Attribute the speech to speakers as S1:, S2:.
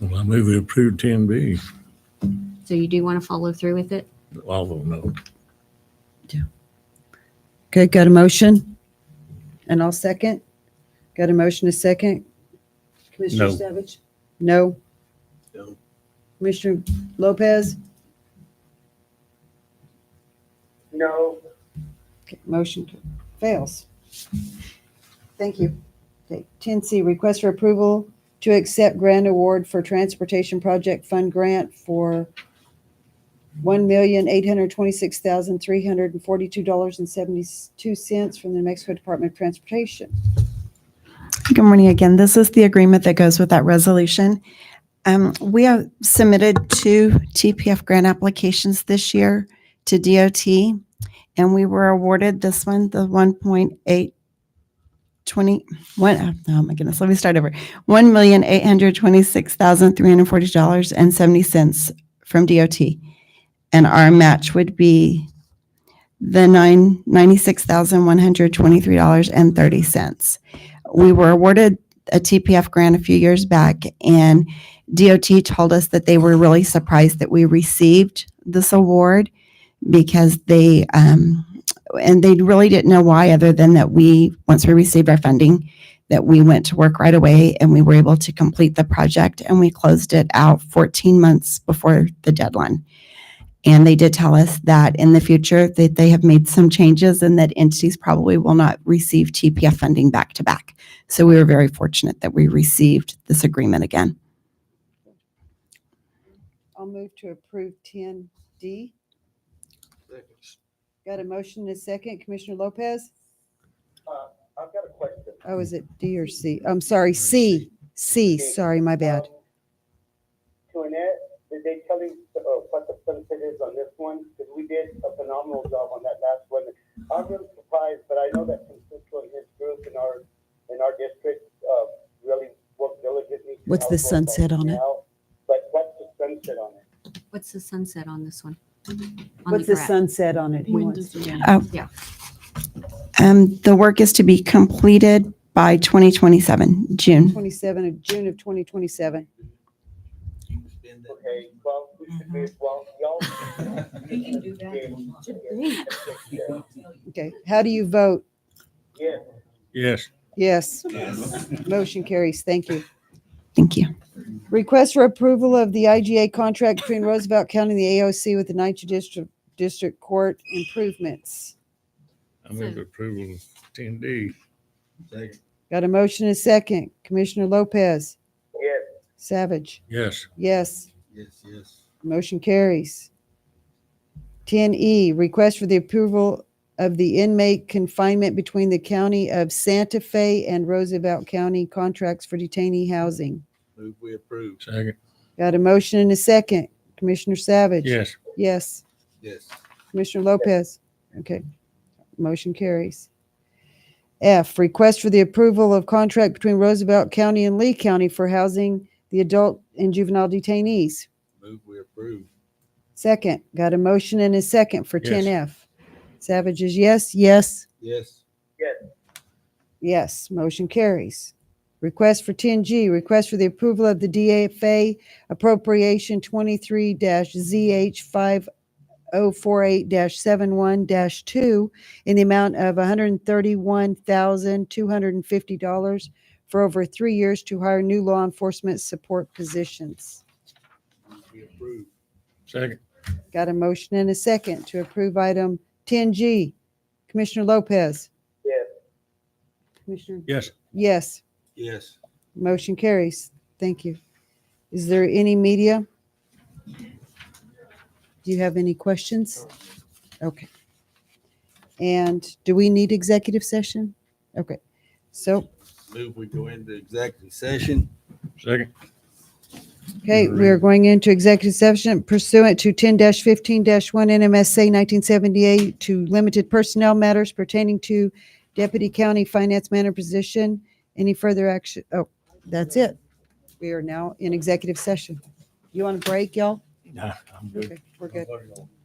S1: Well, I move we approve ten B,
S2: So you do want to follow through with it?
S1: although no.
S3: Okay, got a motion? And I'll second? Got a motion, a second? Commissioner
S1: No.
S3: Savage? No? No. Commissioner Lopez?
S4: No,
S3: Okay, Motion fails. Thank you. Okay, ten C, request for approval to accept grant award for transportation project fund grant for one million eight hundred twenty-six thousand three hundred and forty-two dollars and seventy-two cents from the New Mexico Department of Transportation.
S5: Good morning again. This is the agreement that goes with that resolution. Um, We have submitted two TPF grant applications this year to DOT, and we were awarded this one, the 1.820, one- oh my goodness, let me start over. $1,826,340.70 from DOT. And our match would be the nine ninety-six thousand one hundred twenty-three dollars 30 we were awarded a TPF grant a few years back, and DOT told us that they were really surprised that we received this award because they, um, and they really didn't know why, other than that we, once we received our funding, that we went to work right away and we were able to complete the project and we closed it out 14 months before the deadline. And they did tell us that in the future that they have made some changes and that entities probably will not receive TPF funding back to back. So we were very fortunate that we received this agreement again.
S3: I'll move to approve ten D. Got a motion and a second. Commissioner Lopez?
S4: I've got a question.
S3: Oh, is it D or C? I'm sorry, C. C, sorry, my bad.
S4: Um, Toinette, did they tell you uh, what the sunset is on this one? Because we did a phenomenal job on that last one. I'm really surprised, but I know that Francisco and his group in our, in our district uh, really worked diligently. to
S3: What's
S4: help
S3: the
S4: us
S3: sunset on it?
S4: out. But what's the sunset on it?
S2: What's the sunset on this one? On
S3: Mm-hmm. What's the
S2: graph.
S3: sunset on it? He
S6: When
S3: wants
S6: does
S3: to
S6: it
S3: know.
S6: end?
S5: Um, the work is to be completed by 2027, June.
S3: 27 of June of 2027.
S4: Okay, well, we should be, well, y'all. We can do that.
S3: Okay, how do you vote?
S4: Yes,
S1: Yes,
S3: Yes. Motion carries. Thank you.
S5: Thank you.
S3: Request for approval of the IGA contract between Roosevelt County and the AOC with the Ninth District, District Court improvements.
S1: I move approval of ten D.
S3: Got a motion and a second. Commissioner Lopez,
S4: yes,
S3: Savage,
S1: Yes,
S3: yes.
S7: Yes, yes.
S3: Motion carries. Ten E, request for the approval of the inmate confinement between the County of Santa Fe and Roosevelt County contracts for detainee housing.
S7: Move we approve.
S1: second,
S3: Got a motion and a second. Commissioner Savage?
S1: yes,
S3: Yes.
S7: Yes.
S3: Commissioner Lopez? Okay. Motion carries. F, request for the approval of contract between Roosevelt County and Lee County for housing the adult and juvenile detainees.
S7: Move we approve.
S3: Second, got a motion and a second for
S1: Yes.
S3: ten F. Savage is yes, yes,
S7: Yes.
S3: yes. Motion carries. Request for ten G, request for the approval of the DFA appropriation twenty-three ZH five oh four eight 71 two in the amount of hundred and thirty-one thousand, two hundred and fifty dollars for over three years to hire new law enforcement support positions.
S7: Move we approve.
S1: second,
S3: Got a motion and a second to approve item 10G. Commissioner Lopez?
S4: yes,
S3: Commissioner?
S1: yes,
S3: Yes,
S7: Yes.
S3: motion carries. Thank you. Is there any media? Do you have any questions? Okay. And do we need executive session? Okay, so,
S7: Move we go into executive session.
S1: second,
S3: okay, we are going into executive session pursuant to 10-15-1 NMSA 1978 to limited personnel matters pertaining to deputy county finance manager position. Any further action? Oh, that's it. We are now in executive session. You want a break, y'all?
S1: nah, I'm good.
S3: Okay, We're good.
S7: Voting on